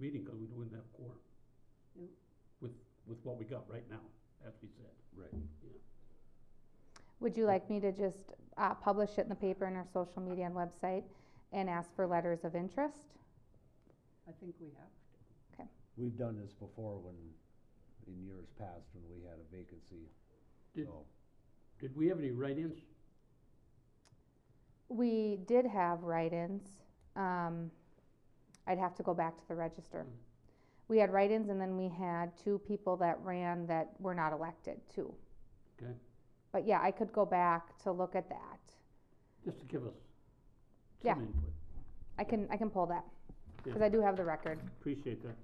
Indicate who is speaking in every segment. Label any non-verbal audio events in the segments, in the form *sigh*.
Speaker 1: meeting because we wouldn't have quorum.
Speaker 2: Yep.
Speaker 1: With, with what we got right now, as we said.
Speaker 3: Right.
Speaker 4: Would you like me to just uh, publish it in the paper and our social media and website and ask for letters of interest?
Speaker 2: I think we have to.
Speaker 3: We've done this before when, in years past, when we had a vacancy,
Speaker 1: Did,
Speaker 3: so.
Speaker 1: did we have any write-ins?
Speaker 4: We did have write-ins. Um, I'd have to go back to the register.
Speaker 1: Mm.
Speaker 4: We had write-ins and then we had two people that ran that were not elected too.
Speaker 1: Okay.
Speaker 4: But yeah, I could go back to look at that.
Speaker 1: Just to give us
Speaker 4: Yeah.
Speaker 1: some input.
Speaker 4: I can, I can pull that, cause
Speaker 1: Yeah.
Speaker 4: I do have the record.
Speaker 1: Appreciate that.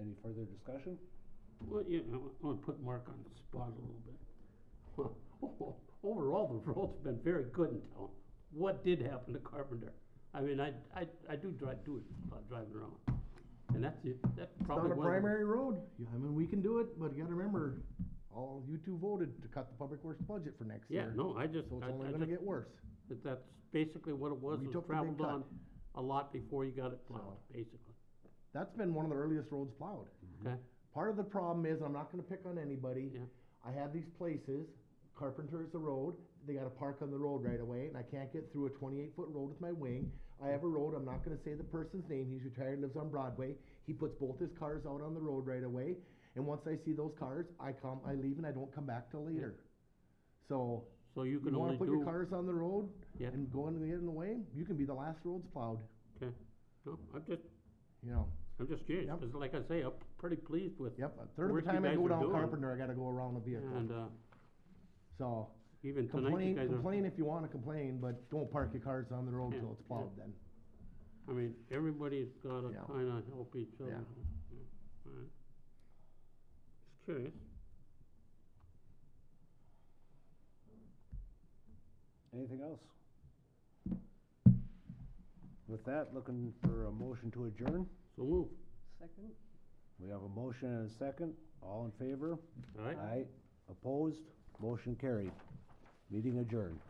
Speaker 3: Any further discussion?
Speaker 1: Well, you know, I want to put Mark on the spot a little bit. *laughs* Overall, the road's been very good in town. What did happen to Carpenter? I mean, I, I, I do drive, do it, uh, driving around. And that's it, that's
Speaker 5: It's
Speaker 1: probably
Speaker 5: not a
Speaker 1: one of the-
Speaker 5: primary road, Yeah, I mean, we can do it, but you gotta remember, all you two voted to cut the public works budget for next
Speaker 1: Yeah,
Speaker 5: year.
Speaker 1: no, I just,
Speaker 5: So it's
Speaker 1: I,
Speaker 5: only
Speaker 1: I
Speaker 5: gonna
Speaker 1: just,
Speaker 5: get worse.
Speaker 1: that- that's basically what it was,
Speaker 5: We
Speaker 1: was
Speaker 5: took the big
Speaker 1: traveled
Speaker 5: cut.
Speaker 1: on a lot before you got it plowed,
Speaker 5: So-
Speaker 1: basically,
Speaker 5: That's been one of the earliest roads plowed.
Speaker 1: okay?
Speaker 5: Part of the problem is, I'm not gonna pick on anybody.
Speaker 1: Yeah.
Speaker 5: I have these places, Carpenter's the road, they gotta park on the road right away, and I can't get through a twenty-eight foot road with my wing. I have a road, I'm not gonna say the person's name, he's retired, lives on Broadway, he puts both his cars out on the road right away. And once I see those cars, I come, I leave and I don't come back till later. So,
Speaker 1: So you can
Speaker 5: You wanna
Speaker 1: only
Speaker 5: put your
Speaker 1: do,
Speaker 5: cars on the road
Speaker 1: Yeah.
Speaker 5: and go in the, in the way, you can be the last roads plowed,
Speaker 1: no, I'm just,
Speaker 5: you know.
Speaker 1: I'm just curious,
Speaker 5: Yep.
Speaker 1: because like I say, I'm pretty pleased with,
Speaker 5: Yep, a third of
Speaker 1: Work
Speaker 5: the
Speaker 1: you
Speaker 5: time I
Speaker 1: guys
Speaker 5: go
Speaker 1: are
Speaker 5: down
Speaker 1: doing.
Speaker 5: Carpenter, I gotta go around a vehicle,
Speaker 1: and, uh,
Speaker 5: so.
Speaker 1: even tonight, you
Speaker 5: Complain,
Speaker 1: guys are,
Speaker 5: complain if you wanna complain, but don't park your cars on the road
Speaker 1: Yeah,
Speaker 5: till it's
Speaker 1: yeah.
Speaker 5: plowed then.
Speaker 1: I mean, everybody's gotta
Speaker 5: Yeah.
Speaker 1: kinda help each other.
Speaker 5: Yeah.
Speaker 1: Yeah, alright. Just curious,
Speaker 3: Anything else? With that, looking for a motion to adjourn.
Speaker 1: so move,
Speaker 2: Second?
Speaker 3: We have a motion and a second. All in favor?
Speaker 1: alright?
Speaker 3: Opposed? Motion carried. Meeting adjourned.